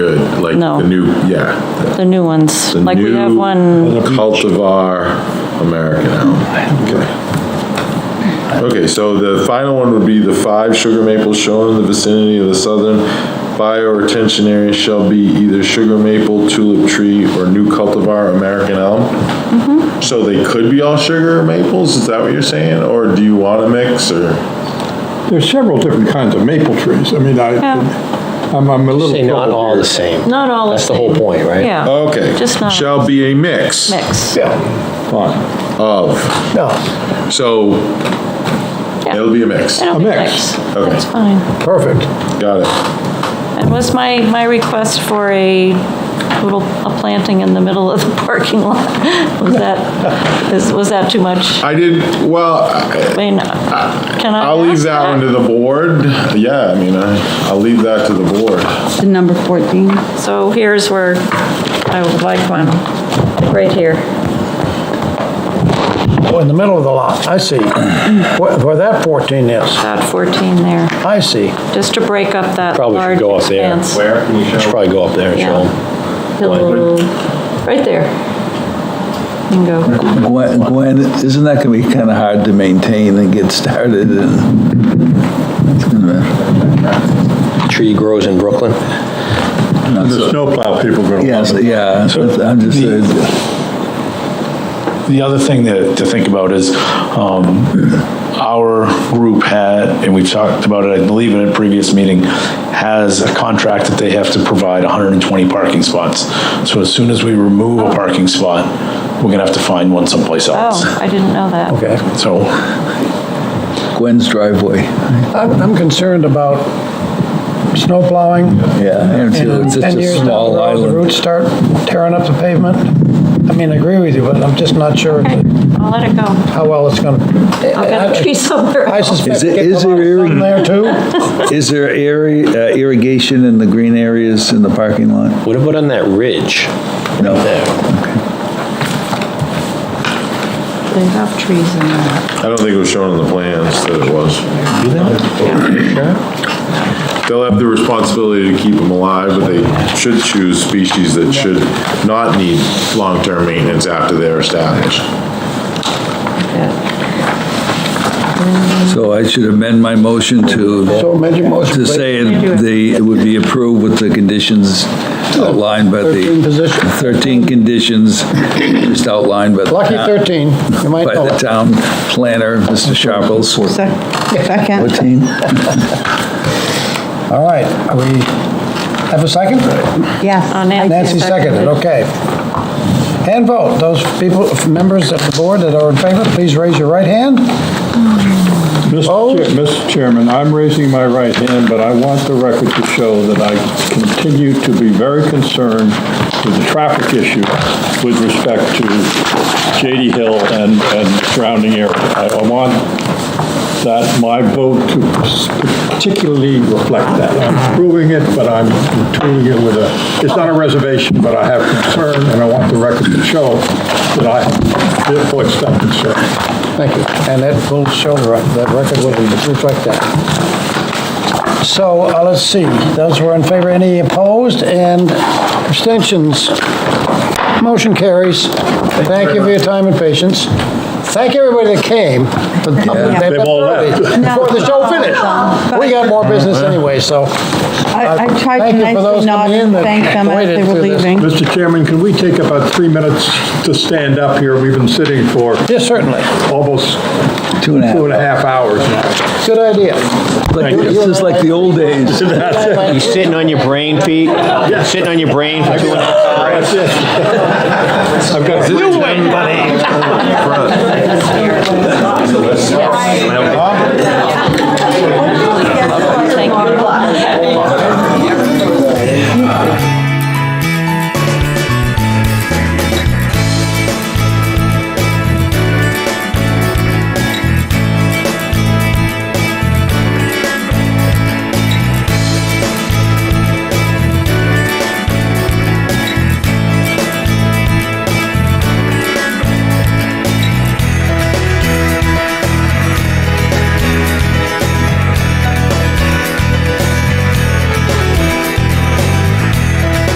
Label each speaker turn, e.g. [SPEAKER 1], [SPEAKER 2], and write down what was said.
[SPEAKER 1] good, like
[SPEAKER 2] No.
[SPEAKER 1] the new, yeah.
[SPEAKER 2] the new ones.
[SPEAKER 1] the
[SPEAKER 2] Like we have
[SPEAKER 1] new
[SPEAKER 2] one,
[SPEAKER 1] Cultivar American elm. Okay. Okay, so the final one would be the five sugar maples shown in the vicinity of the southern bioretention area shall be either sugar maple, tulip tree, or new cultivar American elm.
[SPEAKER 2] Mm-hmm.
[SPEAKER 1] So they could be all sugar or maples, is that what you're saying? Or do you want a mix, or?
[SPEAKER 3] There's several different kinds of maple trees. I mean, I, I'm, I'm a little.
[SPEAKER 4] Say not
[SPEAKER 3] troubled
[SPEAKER 4] all
[SPEAKER 3] here.
[SPEAKER 4] the same.
[SPEAKER 2] not all the
[SPEAKER 4] That's the whole
[SPEAKER 2] same.
[SPEAKER 4] point, right?
[SPEAKER 2] Yeah,
[SPEAKER 1] Okay.
[SPEAKER 2] Just not-
[SPEAKER 1] Shall be a mix.
[SPEAKER 2] mix.
[SPEAKER 3] Fine.
[SPEAKER 1] Of,
[SPEAKER 4] No,
[SPEAKER 1] so
[SPEAKER 2] Yeah.
[SPEAKER 1] it'll be a mix.
[SPEAKER 2] It'll
[SPEAKER 3] A
[SPEAKER 2] be
[SPEAKER 3] mix.
[SPEAKER 1] Okay.
[SPEAKER 2] That's fine.
[SPEAKER 4] perfect.
[SPEAKER 1] Got it.
[SPEAKER 2] And was my, my request for a little, a planting in the middle of the parking lot? Was that, is, was that too much?
[SPEAKER 1] I did, well, I-
[SPEAKER 2] I mean, can I?
[SPEAKER 1] I'll leave
[SPEAKER 2] ask
[SPEAKER 1] that one to the board. Yeah, I mean, I- I'll leave that to the board.
[SPEAKER 5] to number 14.
[SPEAKER 2] So here's where I would like one, right here.
[SPEAKER 4] Oh, in the middle of the lot, I see. Where where that 14 is,
[SPEAKER 2] About 14 there,
[SPEAKER 4] I see.
[SPEAKER 2] just to break up that
[SPEAKER 4] Probably should
[SPEAKER 2] large
[SPEAKER 4] go up there.
[SPEAKER 2] expanse.
[SPEAKER 1] Where can you
[SPEAKER 4] Should probably go up there and show
[SPEAKER 2] Yeah.
[SPEAKER 4] 'em.
[SPEAKER 2] Hello. Right there. You can go.
[SPEAKER 6] Gwen, Gwen, isn't that gonna be kinda hard to maintain and get started and?
[SPEAKER 4] Tree grows in Brooklyn.
[SPEAKER 3] The snowplow people grow.
[SPEAKER 6] Yes, yeah, so I'm just, uh,
[SPEAKER 7] The other thing to, to think about is, um, our group had, and we've talked about it, I believe in a previous meeting, has a contract that they have to provide hundred and twenty parking spots. So as soon as we remove a parking spot, we're gonna have to find one someplace else.
[SPEAKER 2] Oh, I didn't know that.
[SPEAKER 4] Okay.
[SPEAKER 7] So,
[SPEAKER 6] Gwen's driveway,
[SPEAKER 4] I'm I'm concerned about snow plowing.
[SPEAKER 6] yeah. I don't feel
[SPEAKER 4] And
[SPEAKER 6] It's such
[SPEAKER 4] 10
[SPEAKER 6] a
[SPEAKER 4] years down the
[SPEAKER 6] small
[SPEAKER 4] road, the
[SPEAKER 6] island.
[SPEAKER 4] roots start tearing up the pavement. I mean, I agree with you, but I'm just not sure
[SPEAKER 2] Okay, I'll let it go.
[SPEAKER 4] how well it's going to.
[SPEAKER 2] I'll get a tree somewhere.
[SPEAKER 4] I suspect
[SPEAKER 6] Is it-
[SPEAKER 4] getting a
[SPEAKER 6] is
[SPEAKER 4] lot
[SPEAKER 6] there
[SPEAKER 4] of sun there too.
[SPEAKER 6] Is there area, uh, irrigation in the green areas in the parking lot?
[SPEAKER 4] What about on that ridge?
[SPEAKER 6] No.
[SPEAKER 5] They have trees in there.
[SPEAKER 1] I don't think it was shown in the plans that it was. They'll have the responsibility to keep them alive, but they should choose species that should not need long-term maintenance after they're established.
[SPEAKER 6] So I should amend my motion to,
[SPEAKER 4] So amend your motion,
[SPEAKER 6] to
[SPEAKER 4] please.
[SPEAKER 6] say it- they, it would be approved with the conditions outlined by the.
[SPEAKER 4] 13 position.
[SPEAKER 6] 13 conditions just outlined by the.
[SPEAKER 4] Lucky
[SPEAKER 6] town-
[SPEAKER 4] 13, you might
[SPEAKER 6] By
[SPEAKER 4] know
[SPEAKER 6] the
[SPEAKER 4] it.
[SPEAKER 6] town planner, Mr. Sharples.
[SPEAKER 5] Sec- Second.
[SPEAKER 6] 14?
[SPEAKER 4] All right, are we, have a second?
[SPEAKER 5] Yes.
[SPEAKER 2] Oh, Nancy
[SPEAKER 4] Nancy seconded, okay. And vote, those people, members of the board that are in favor, please raise your right hand.
[SPEAKER 3] Mr. Chair- Mr. Chairman, I'm raising my right hand, but I want the record to show that I continue to be very concerned with the traffic issue with respect to J.D. Hill and, and surrounding area. I I want that, my vote to particularly reflect that. I'm approving it, but I'm tuning it with a, it's not a reservation, but I have concern, and I want the record to show that I therefore express concern.
[SPEAKER 4] Thank you. And that will show, the rec- that record will reflect that. So, uh, let's see, those who are in favor, any opposed, and abstentions? Motion carries. Thank you for your time and patience. Thank everybody that came. They've
[SPEAKER 3] They've all left.
[SPEAKER 4] Before the show finished. We got more business anyway, so.
[SPEAKER 5] Uh,
[SPEAKER 4] uh,
[SPEAKER 5] I I tried
[SPEAKER 4] Thank
[SPEAKER 5] to
[SPEAKER 4] you for those
[SPEAKER 5] nicely nod
[SPEAKER 4] coming in
[SPEAKER 5] and
[SPEAKER 4] that
[SPEAKER 5] thank them as
[SPEAKER 4] waited
[SPEAKER 5] they were
[SPEAKER 4] through this.
[SPEAKER 5] leaving.
[SPEAKER 3] Mr. Chairman, can we take about three minutes to stand up here? We've been sitting for
[SPEAKER 4] Yes, certainly.
[SPEAKER 3] almost
[SPEAKER 6] Two and a half.
[SPEAKER 3] two and a half hours now.
[SPEAKER 4] Good idea.
[SPEAKER 6] Like, This is like the old days.
[SPEAKER 8] You sitting on your brain, Pete? You Sitting on your brain for two and a half hours?
[SPEAKER 3] That's it. I've got,
[SPEAKER 8] Do it, buddy.
[SPEAKER 1] Front.